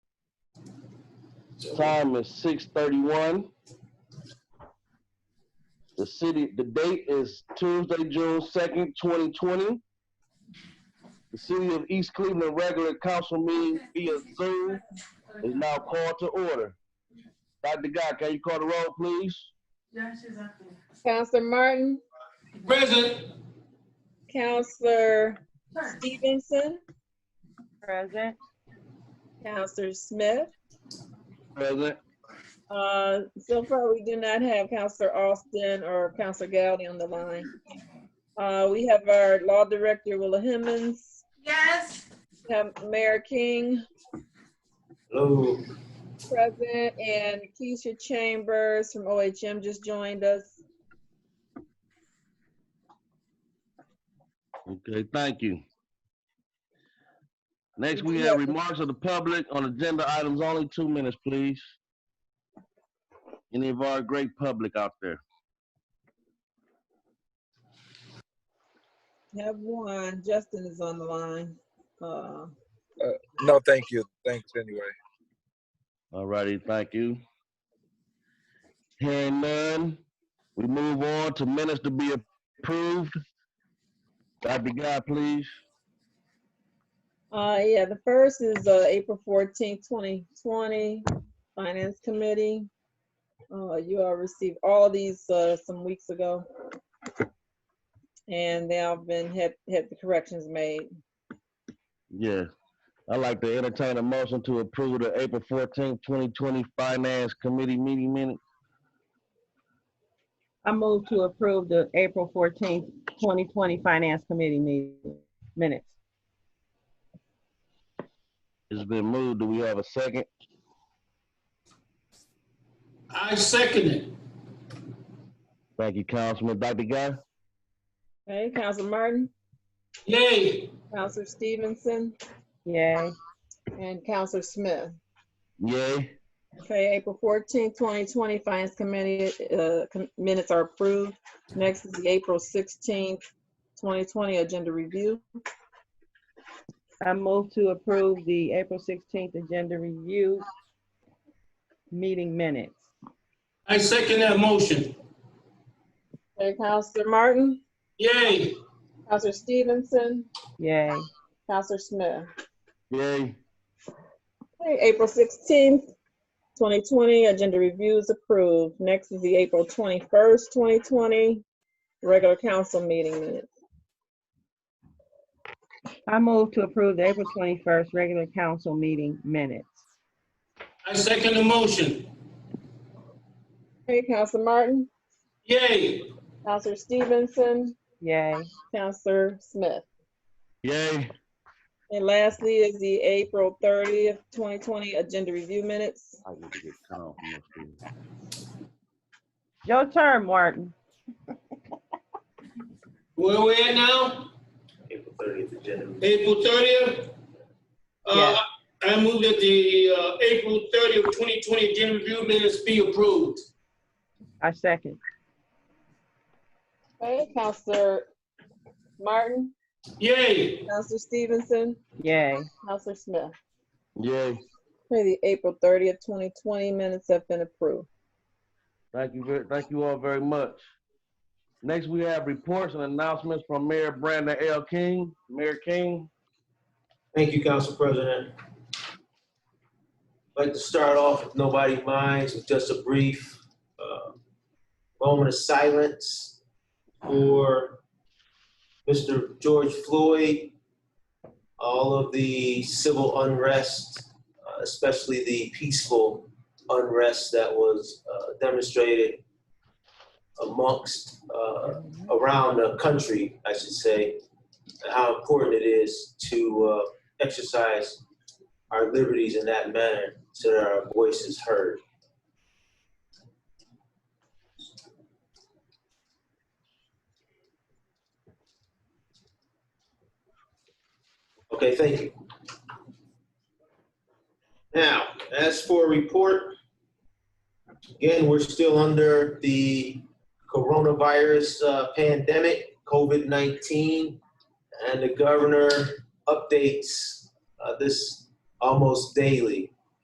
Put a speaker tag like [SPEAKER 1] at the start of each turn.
[SPEAKER 1] Time is six thirty-one. The city, the date is Tuesday, June second, twenty twenty. The city of East Cleveland regular council meeting via Zoom is now called to order. Dr. Guy, can you call the roll, please?
[SPEAKER 2] Counselor Martin,
[SPEAKER 3] Present.
[SPEAKER 2] Counselor Stevenson,
[SPEAKER 4] Present.
[SPEAKER 2] Counselor Smith.
[SPEAKER 1] Present.
[SPEAKER 2] Uh, so far, we do not have Counselor Austin or Counselor Gowdy on the line. Uh, we have our law director, Willa Hemmons,
[SPEAKER 5] Yes.
[SPEAKER 2] we have Mayor King
[SPEAKER 3] Hello.
[SPEAKER 2] present, and Keisha Chambers from OHM just joined us.
[SPEAKER 1] Okay, thank you. Next, we have remarks of the public on agenda items, only two minutes, please. Any of our great public out there?
[SPEAKER 2] Have one, Justin is on the line. Uh,
[SPEAKER 6] No, thank you. Thanks anyway.
[SPEAKER 1] All righty, thank you. Hearing none, we move on to minutes to be approved. Dr. Guy, please.
[SPEAKER 2] Uh, yeah, the first is, uh, April fourteenth, twenty twenty, Finance Committee. Uh, you all received all these, uh, some weeks ago. And they all been, had, had the corrections made.
[SPEAKER 1] Yeah. I'd like to entertain a motion to approve the April fourteenth, twenty twenty Finance Committee meeting minutes.
[SPEAKER 4] I move to approve the April fourteenth, twenty twenty Finance Committee meeting minutes.
[SPEAKER 1] It's been moved. Do we have a second?
[SPEAKER 3] I second it.
[SPEAKER 1] Thank you, Councilman. Dr. Guy?
[SPEAKER 2] Okay, Counselor Martin,
[SPEAKER 3] Yay.
[SPEAKER 2] Counselor Stevenson,
[SPEAKER 4] Yay.
[SPEAKER 2] and Counselor Smith.
[SPEAKER 1] Yay.
[SPEAKER 2] Okay, April fourteenth, twenty twenty, Finance Committee, uh, com- minutes are approved. Next is the April sixteenth, twenty twenty, Agenda Review.
[SPEAKER 4] I move to approve the April sixteenth Agenda Review meeting minutes.
[SPEAKER 3] I second that motion.
[SPEAKER 2] Okay, Counselor Martin?
[SPEAKER 3] Yay.
[SPEAKER 2] Counselor Stevenson,
[SPEAKER 4] Yay.
[SPEAKER 2] Counselor Smith.
[SPEAKER 1] Yay.
[SPEAKER 2] Okay, April sixteenth, twenty twenty, agenda review is approved. Next is the April twenty-first, twenty twenty, regular council meeting minutes.
[SPEAKER 4] I move to approve the April twenty-first regular council meeting minutes.
[SPEAKER 3] I second the motion.
[SPEAKER 2] Okay, Counselor Martin,
[SPEAKER 3] Yay.
[SPEAKER 2] Counselor Stevenson,
[SPEAKER 4] Yay.
[SPEAKER 2] Counselor Smith.
[SPEAKER 1] Yay.
[SPEAKER 2] And lastly is the April thirtieth, twenty twenty, agenda review minutes.
[SPEAKER 1] I need to get cut off from this thing.
[SPEAKER 4] Your turn, Martin.
[SPEAKER 3] Where we at now?
[SPEAKER 7] April thirtieth agenda.
[SPEAKER 3] April thirtieth? Uh,
[SPEAKER 4] Yeah.
[SPEAKER 3] I move that the, uh, April thirtieth, twenty twenty agenda review minutes be approved.
[SPEAKER 4] I second.
[SPEAKER 2] Okay, Counselor Martin,
[SPEAKER 3] Yay.
[SPEAKER 2] Counselor Stevenson,
[SPEAKER 4] Yay.
[SPEAKER 2] Counselor Smith.
[SPEAKER 1] Yay.
[SPEAKER 2] Okay, the April thirtieth, twenty twenty minutes have been approved.
[SPEAKER 1] Thank you, ver- thank you all very much. Next, we have reports and announcements from Mayor Brandon L. King. Mayor King?
[SPEAKER 7] Thank you, Council President. I'd like to start off, if nobody minds, with just a brief uh, moment of silence for Mr. George Floyd, all of the civil unrest, uh, especially the peaceful unrest that was uh, demonstrated amongst, uh, around the country, I should say, and how important it is to uh, exercise our liberties in that manner so that our voice is heard. Okay, thank you. Now, as for report, again, we're still under the coronavirus uh, pandemic, COVID 19, and the governor updates uh, this almost daily.